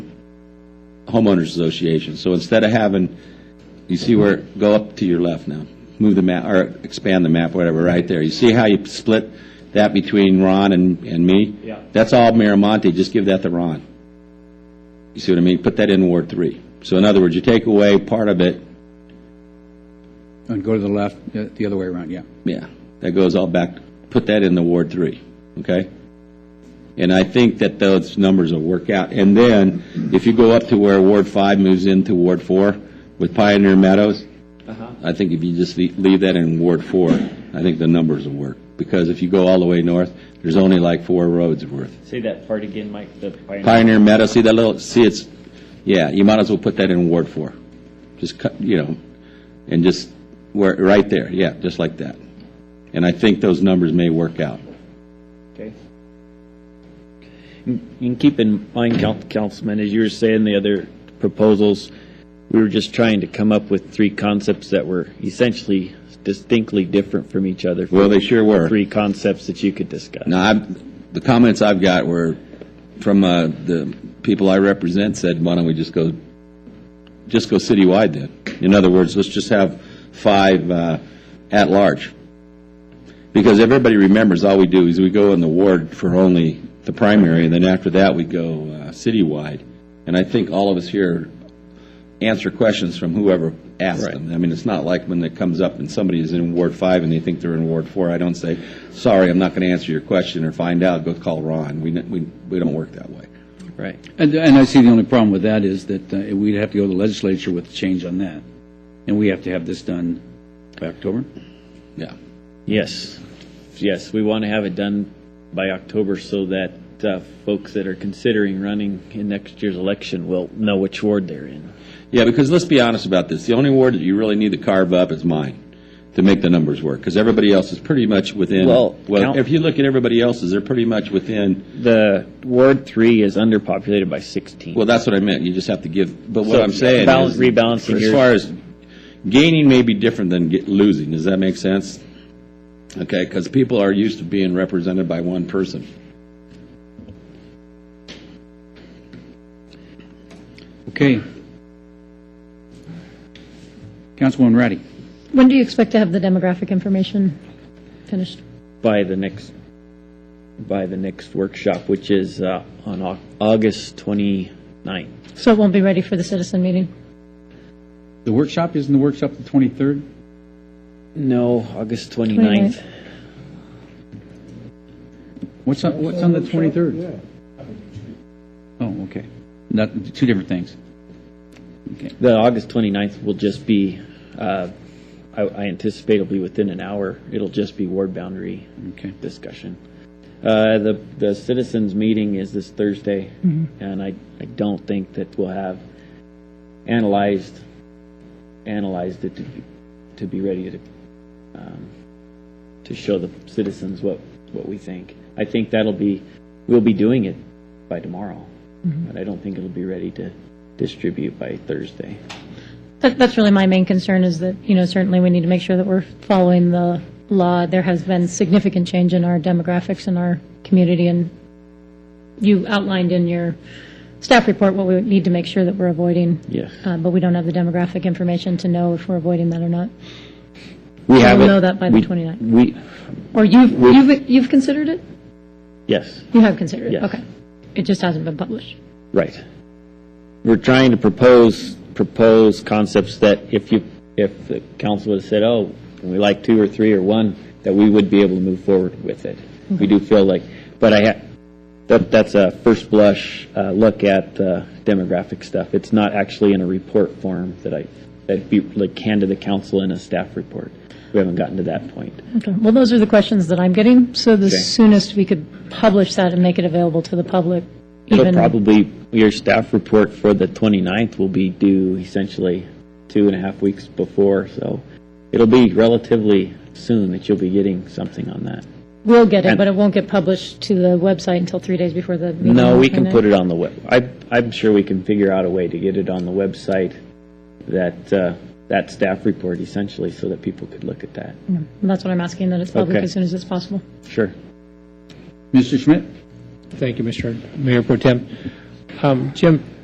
homeowners association. So instead of having, you see where, go up to your left now, move the map, or expand the map, whatever, right there. You see how you split that between Ron and, and me? Yeah. That's all Miramonte, just give that to Ron. You see what I mean? Put that in Ward Three. So in other words, you take away part of it, And go to the left, uh, the other way around, yeah. Yeah, that goes all back, put that in the Ward 3, okay? And I think that those numbers will work out. And then, if you go up to where Ward 5 moves into Ward 4 with Pioneer Meadows, I think if you just le- leave that in Ward 4, I think the numbers will work. Because if you go all the way north, there's only like four roads worth. Say that part again, Mike, the pioneer. Pioneer Meadow, see that little, see it's, yeah, you might as well put that in Ward 4. Just cut, you know, and just, where, right there, yeah, just like that. And I think those numbers may work out. Okay. You can keep in mind, Coun- Councilman, as you were saying, the other proposals, we were just trying to come up with three concepts that were essentially distinctly different from each other. Well, they sure were. Three concepts that you could discuss. Now, I've, the comments I've got were from, uh, the people I represent said, why don't we just go, just go citywide then? In other words, let's just have five, uh, at-large. Because everybody remembers, all we do is we go in the ward for only the primary, and then after that, we go, uh, citywide. And I think all of us here answer questions from whoever asked them. I mean, it's not like when it comes up and somebody is in Ward 5 and they think they're in Ward 4, I don't say, sorry, I'm not going to answer your question or find out, go call Ron. We, n- we, we don't work that way. Right. And, and I see the only problem with that is that uh, we'd have to go to the legislature with a change on that. And we have to have this done by October? Yeah. Yes, yes, we want to have it done by October so that uh, folks that are considering running in next year's election will know which ward they're in. Yeah, because let's be honest about this, the only ward that you really need to carve up is mine to make the numbers work, because everybody else is pretty much within, Well, well, count- if you look at everybody else's, they're pretty much within, The Ward 3 is underpopulated by 16. well, that's what I meant, you just have to give, but what So, I'm saying balance- is, rebalancing As your- far as gaining may be different than get- losing, does that make sense? Okay, because people are used to being represented by one person. Okay. Councilwoman Ratty? When do you expect to have the demographic information finished? by the next, by the next workshop, which is uh, on Au- August 29th. So it won't be ready for the citizen meeting? The workshop, isn't the workshop the 23rd? No, August 29th. What's on, what's on the 23rd? Oh, okay. Not, two different things. The August 29th will just be, uh, I I anticipate it'll be within an hour. It'll just be ward boundary Okay. discussion. Uh, The the citizens' meeting is this Thursday, Mm-hmm. and I I don't think that we'll have analyzed, analyzed it to be, to be ready to, um, to show the citizens what, what we think. I think that'll be, we'll be doing it by tomorrow, Mm-hmm. but I don't think it'll be ready to distribute by Thursday. That, that's really my main concern is that, you know, certainly we need to make sure that we're following the law. There has been significant change in our demographics in our community, and you outlined in your staff report what we would need to make sure that we're avoiding. Yes. Uh, But we don't have the demographic information to know if we're avoiding that or not. We have We'll it- know that by the we- 29th. We, Or you've, you've, you've considered it? yes. You have considered it? Yes. Okay. It just hasn't been published. Right. We're trying to propose, propose concepts that if you, if the council would have said, oh, we like two or three or one, that we would be able to move forward with it. We do feel like, but I, ha- that, that's a first blush uh, look at uh, demographic stuff. It's not actually in a report form that I, that be, like, hand to the council in a staff report. We haven't gotten to that point. Okay, well, those are the questions that I'm getting, so the Okay. soonest we could publish that and make it available to the public, It'll even- probably, your staff report for the 29th will be due essentially two and a half weeks before, so it'll be relatively soon that you'll be getting something on that. We'll get it, and- but it won't get published to the website until three days before the meeting. No, we can put it on the web, I, I'm sure we can figure out a way to get it on the website, that, uh, that staff report essentially, so that people could look at that. And that's what I'm asking, that it's public Okay. as soon as it's possible. Sure. Mr. Schmidt? Thank you, Mr. Mayor Pro Tem. Um, Jim,